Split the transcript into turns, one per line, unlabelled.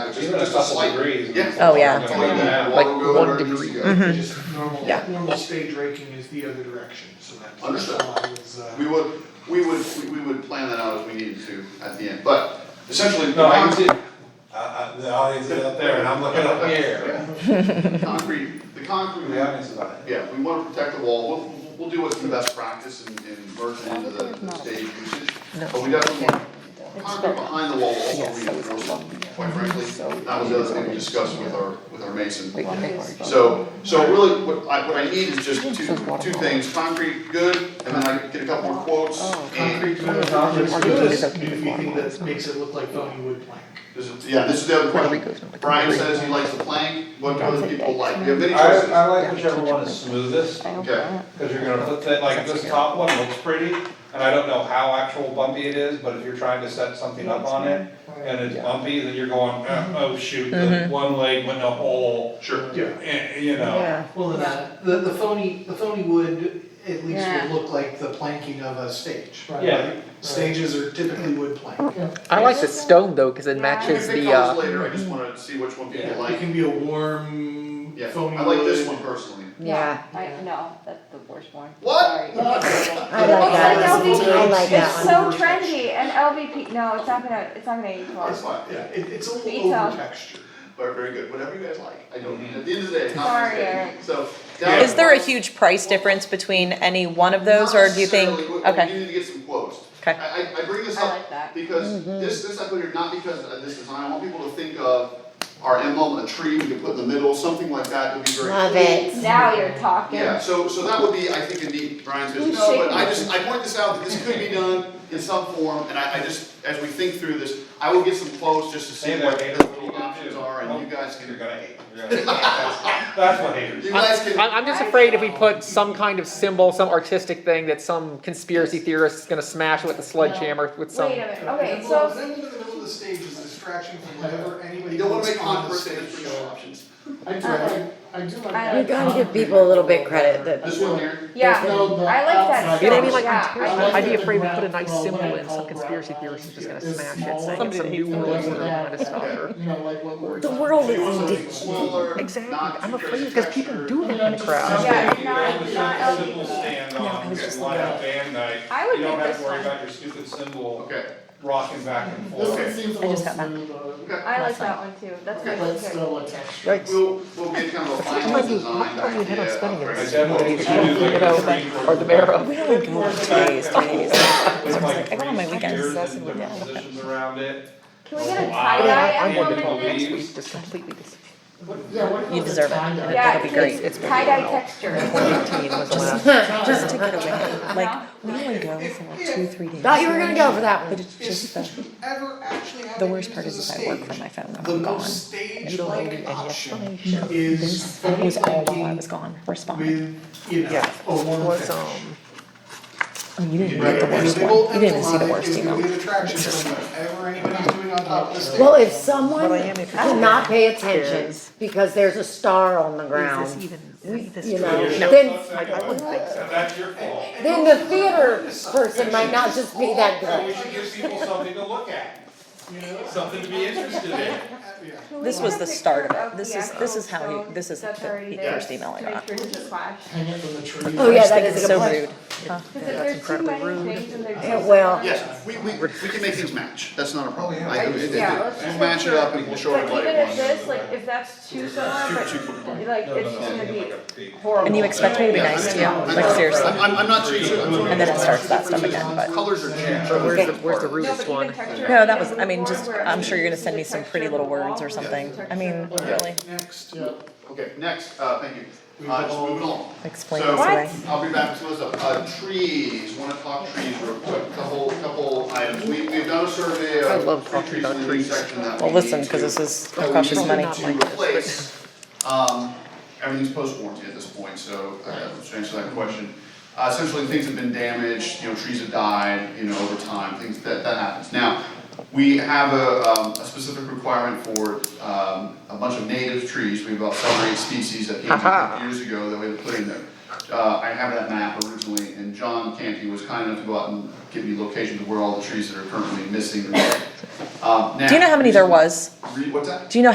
even a couple degrees.
Yeah.
Oh, yeah.
it's gonna be bad.
Like
Water go
one
where it
degree.
needs to go.
Mhm.
Just normal,
Yeah.
normal stage raking is the other direction, so that's.
Understood.
why I was, uh,
We would, we would, we- we would plan that out if we needed to at the end, but essentially,
No, I
the
did, I, I, the audience is up there and I'm looking up here.
concrete, the concrete.
The audience is up there.
Yeah, we wanna protect the wall, we'll, we'll- we'll do what's the best practice and, and merge it into the, the stage usage. But we definitely want, concrete behind the wall will also reinforce it, quite frankly. That was the other thing we discussed with our, with our mason. So, so really, what I, what I need is just two, two things, concrete, good, and then I get a couple more quotes.
Oh,
Concrete,
And,
uh,
concrete
concrete
is
is
okay
new
for
thing
water.
that makes it look like phony wood plank.
this is- yeah, this is the other
Puerto
question.
Rico's not like
Brian
Hungary.
says he likes the plank, what do other people like? You have
I,
many choices.
I like whichever one is smoothest, cause
Okay,
you're gonna put that, like, this top one looks pretty, and I don't know how actual bumpy it is, but if you're trying to set something up on it, and it's bumpy, then you're going, "Uh, oh shoot, the one leg went in a hole,
sure.
Yeah.
eh, you know.
Yeah,
Well, and that, the, the phony, the phony wood at least
Yeah.
would look like the planking of a stage.
Yeah.
right? Stages are typically wood plank.
I like the stone though, cause it
Yeah.
matches
I can
the
pick colors
uh,
later, I just wanna see which one
Yeah.
people
It
like.
can be a warm
Yeah,
phony
I like this
wood.
one personally.
yeah.
I, no, that's the worst one.
What?
Sorry.
I like that.
It's like
I
LVP.
like that
It's
one.
so trendy, and LVP, no, it's not gonna, it's not gonna age well.
That's fine,
Yeah,
yeah,
it, it's a little
Detail.
over textured.
but very good, whatever you guys like, I don't, at the end of the day, it's not my
Sorry,
opinion.
Eric.
so. down-
Is there a huge price difference between any one of those, or do you think,
Not necessarily, but we
okay,
do need to get some quotes.
Okay.
I, I, I bring this
I
up
like that.
because
Mm-hmm.
this, this I put here, not because of this design, I want people to think of our emblem, a tree we could put in the middle, something like that would be very.
Love
cool.
it.
Now you're talking.
Yeah, so, so that would be, I think, a neat, Brian's business,
Who's
no, but
shaking
I
this?
just, I point this out, that this could be done in some form, and I, I just, as we think through this, I will get some quotes just to see
Hey there,
what
Gator,
the
what do you want to
options
do?
are, and you guys
You're
can,
gonna hate, you're gonna hate, that's, that's what haters.
you guys
I'm,
can.
I'm just afraid if we put some kind of symbol, some artistic thing that some conspiracy theorist is gonna smash with a sledgehammer with some.
Wait a minute, okay,
And
so,
then in the middle of the stage is a distraction from whatever anybody
You don't wanna
else
make
on the
controversy,
stage
for your
show.
options.
I do,
Uh-huh.
I, I do like
I
that.
like You
gotta give people a little bit credit that-
This one here,
yeah,
There's no, uh,
I like that
outside
You know what I mean?
stuff,
Like,
yeah.
I'm
I
terrified.
like
I'd
that.
be afraid we put a nice
Well,
symbol
what I
in, some
call
conspiracy
grapevine
theorist is just gonna
is
smash
small
it, saying it's some
and
new
it's like
rules that are on
that.
a stalker.
You know, like what we're.
The world
you want
is
something
addicted.
smaller,
Exactly,
not
I'm
too
afraid,
crazy
because people
structured.
do hate in the crowd.
Yeah,
Something
not-
you
not
have a simple
LVP.
stand on,
was
just
just
line up band night,
I would
you don't
pick
have to
this
worry
one.
about your stupid symbol
Okay,
rocking back and forth.
This one seems a
I
little
just got back.
smoother,
okay,
I like that one too, that's my
but
favorite.
still a texture.
we'll, we'll get kind of a
Sometimes
final
you-
design
sometimes you
idea.
hit on spinning
of-
it.
I definitely should do like
You
a
know,
three quarter
or the mayor of.
We only go on Tuesdays, Tuesdays.
With
I was
like
like, I go on my
three
weekends,
spheres
that's
and
what I
different
do.
positions around it.
Can we get a
Wow.
tie-dye
I- I
I'm
wanted
emblem
going
to
to
in
believe-
this?
next week, just completely disappear.
Yeah, what about
You
the
deserve it.
tie-dye?
Yeah,
That'll be great.
it's
It's been
tie-dye
a while.
texture.
2018 was the last.
Just to get away, like, we only go for like two, three days.
Thought
But
you were gonna go for
that one. it's just the,
Ever actually have
the
it
worst
used
part
as
is
a
if I work
stage,
from my phone when
the
I'm gone.
most
You don't
stage-like
need any
option
explanation.
is
This
phony
was all while I
planking
was gone, responding.
with, you know,
Yeah,
a warm
was,
texture.
um,
Oh,
I mean, you didn't
Right,
get the
and
worst
big old
one, you didn't see the
emblem on
worst
it is gonna be
email.
an attraction from whatever anybody's doing on top of the stage.
Well, if someone
Well, I am if you're
did not pay attention
Is-
because there's a star on the
Is this
ground,
even, is this
you
true?
know,
Your
then,
show's not
I wouldn't think so.
That's your fault.
then the theater person might not just be that
So we
good.
should give people something to look at,
You know?
something to be interested in.
Yeah.
This was the start of it. This is- this is how he- this is the first email I got.
To make sure it doesn't clash.
Hang it from the tree.
Oh, yeah,
I just
that
think
is
it's
a good
so
point.
rude.
Because if there's too
incredibly
many things and they're just.
well-
Yes, we, we, we can make things match, that's not a problem.
Oh, yeah.
I- it- it-
Yeah,
it-
let's just
We'll
make
match it
sure.
up and we'll show
But
it what
even
it
if
wants.
this, like, if that's too similar, but like,
No, no,
it's
no,
just gonna
something
be
like a big-
horrible.
and you expect me to be nice to you, like seriously?
I'm, I'm- I'm not too sure.
And then it starts that stuff again, but-
Colors are changing.
Where's the, where's the rudest
No, but
one?
even texture.
No, that was,
even
I mean,
more
just,
where
I'm
it's
sure you're gonna
just
send
the
me some
texture
pretty
of
little
the
words
wall
or
versus
something,
the
I mean,
texture of the-
really,
Next.
Yeah.
Okay, next, uh, thank you. Uh, just moving on.
explain
So,
this away.
I'll be back to those, uh, trees, wanna talk trees real quick, couple, couple items, we, we've done a survey of.
I love
tree
talking about
in the
trees.
section that
Well,
we
listen,
need
'cause
to-
this is- it
that we
costs us
need
money.
to
Not like this, but-
replace. Um, everything's post warranty at this point, so, uh, to answer that question, uh, essentially, things have been damaged, you know, trees have died, you know, over time, things, that, that happens. Now, we have a, um, a specific requirement for, um, a bunch of native trees, we have about seven or eight species that came
Haha.
years ago that we had put in there. Uh, I have that map originally, and John Canty was kind enough to go out and give me locations of where all the trees that are currently missing. are. Um,
Do you know
now-
how many there was?
Re- What's that?
Do you know